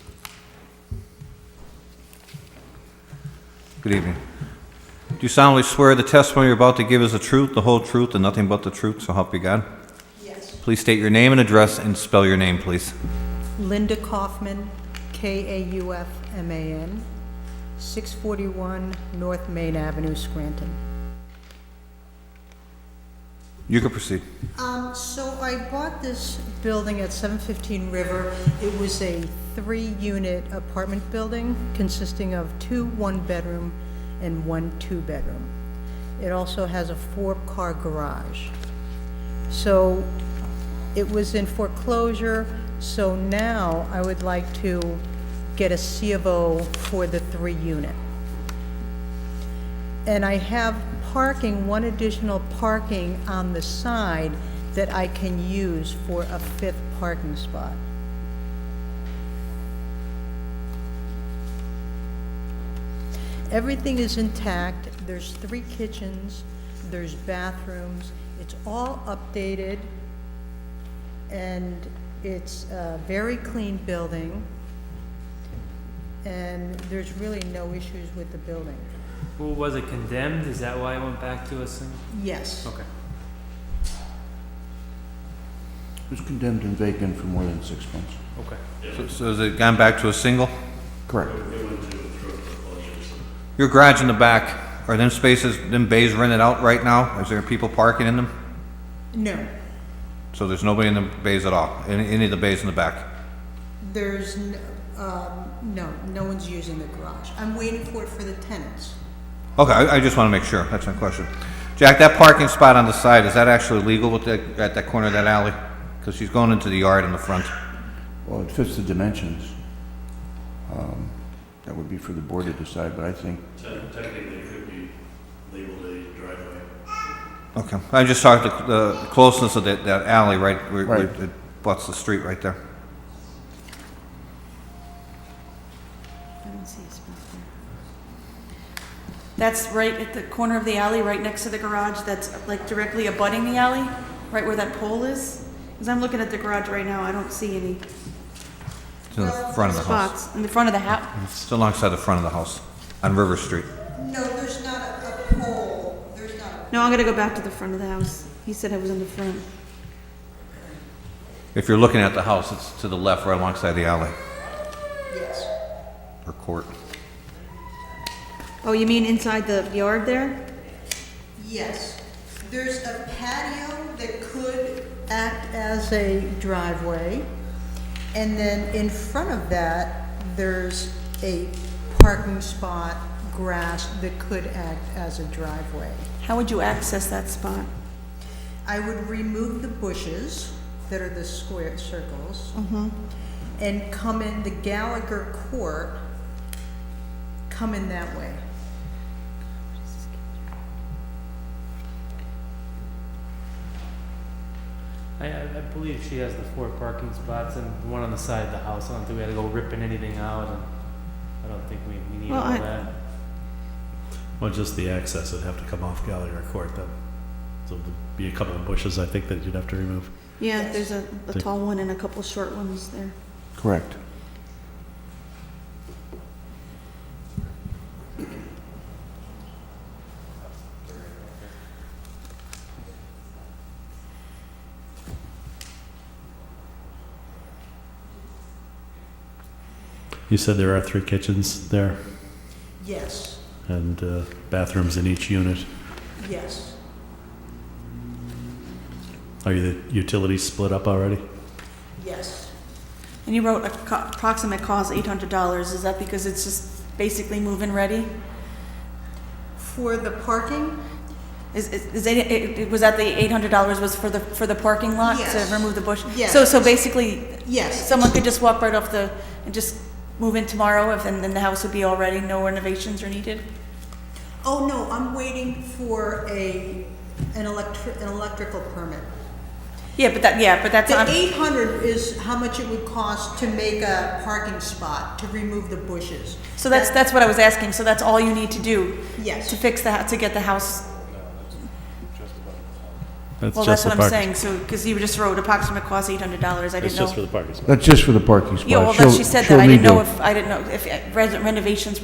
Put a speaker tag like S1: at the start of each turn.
S1: Good evening. Do you solemnly swear the testimony you're about to give is the truth, the whole truth, and nothing but the truth, so help you God? Yes. Please state your name and address and spell your name, please.
S2: Linda Kaufman, K-A-U-F-M-A-N, 641 North Main Avenue, Scranton.
S1: You can proceed.
S2: Um, so I bought this building at 715 River. It was a three-unit apartment building consisting of two one-bedroom and one two-bedroom. It also has a four-car garage. So it was in foreclosure, so now I would like to get a C of O for the three-unit. And I have parking, one additional parking on the side that I can use for a fifth parking spot. Everything is intact, there's three kitchens, there's bathrooms, it's all updated, and it's a very clean building, and there's really no issues with the building.
S3: Well, was it condemned? Is that why it went back to us? And,
S2: Yes.
S3: okay.
S4: It was condemned and vacant for more than six months.
S3: Okay.
S1: So- So has it gone back to a single?
S4: Correct.
S1: Your garage in the back, are them spaces, them bays rented out right now? Is there people parking in them?
S2: No,
S1: So there's nobody in the bays at all, in any of the bays in the back?
S2: there's, n- um, no, no one's using the garage. I'm waiting for it for the tenants.
S1: Okay, I I just want to make sure, that's my question. Jack, that parking spot on the side, is that actually legal with that, at that corner of that alley? Because she's going into the yard in the front.
S4: Well, it fits the dimensions. Um, That would be for the board to decide, but I think,
S5: Te- Technically, it could be labeled a driveway.
S1: Okay, I just talked the the closeness of that that alley, right? where- where
S4: Right.
S1: It butts the street right there.
S6: I don't see his back there. That's right at the corner of the alley, right next to the garage, that's like directly abutting the alley, right where that pole is. Because I'm looking at the garage right now, I don't see any
S1: It's in the front of the house.
S6: spots in the front of the house.
S1: It's alongside the front of the house, on River Street.
S2: No, there's not a pole, there's not.
S6: No, I'm gonna go back to the front of the house. He said I was in the front.
S1: If you're looking at the house, it's to the left, right alongside the alley,
S2: Yes.
S1: or court.
S6: Oh, you mean inside the yard there?
S2: Yes. There's a patio that could act as a driveway. And then in front of that, there's a parking spot, grass that could act as a driveway.
S6: How would you access that spot?
S2: I would remove the bushes that are the square circles.
S6: Mm-hmm.
S2: And come in the Gallagher Court, come in that way.
S3: I, I, I believe she has the four parking spots and the one on the side of the house. I don't think we had to go ripping anything out, and I don't think we, we need
S6: Well,
S3: all
S6: I-
S3: that.
S5: Well, just the access would have to come off Gallagher Court then. So there'd be a couple of bushes, I think, that you'd have to remove.
S6: Yeah, there's a, a tall one and a couple short ones there.
S4: correct.
S5: You said there are three kitchens there
S2: Yes,
S5: and uh, bathrooms in each unit.
S2: yes.
S5: Are the utilities split up already?
S2: Yes.
S6: And you wrote a co- approximate cost eight hundred dollars. Is that because it's just basically move-in ready?
S2: For the parking?
S6: Is, is, is it, it, it- was that the eight hundred dollars was for the, for the parking lot
S2: Yes.
S6: to remove the bush?
S2: Yes.
S6: So, so basically,
S2: Yes.
S6: someone could just walk right off the, and just move in tomorrow if, and then the house would be all ready, no renovations are needed?
S2: Oh, no, I'm waiting for a, an electric, an electrical permit.
S6: Yeah, but that, yeah, but that's
S2: The
S6: on,
S2: eight hundred is how much it would cost to make a parking spot, to remove the bushes.
S6: so that's, that's what I was asking, so that's all you need to do?
S2: Yes.
S6: To fix the, hou- to get the house,
S5: That's
S6: well,
S5: just
S6: that's
S5: the
S6: what I'm
S5: parking-
S6: saying, so, because you just wrote approximate cost eight hundred dollars, I
S5: That's
S6: didn't
S5: just for
S6: know.
S5: the parking spot.
S4: That's just for the parking spot.
S6: Yeah, well, that,
S4: She'll-
S6: she said
S4: she'll
S6: that, I didn't
S4: redo
S6: know
S4: it.
S6: if, I didn't know if uh, res- renovations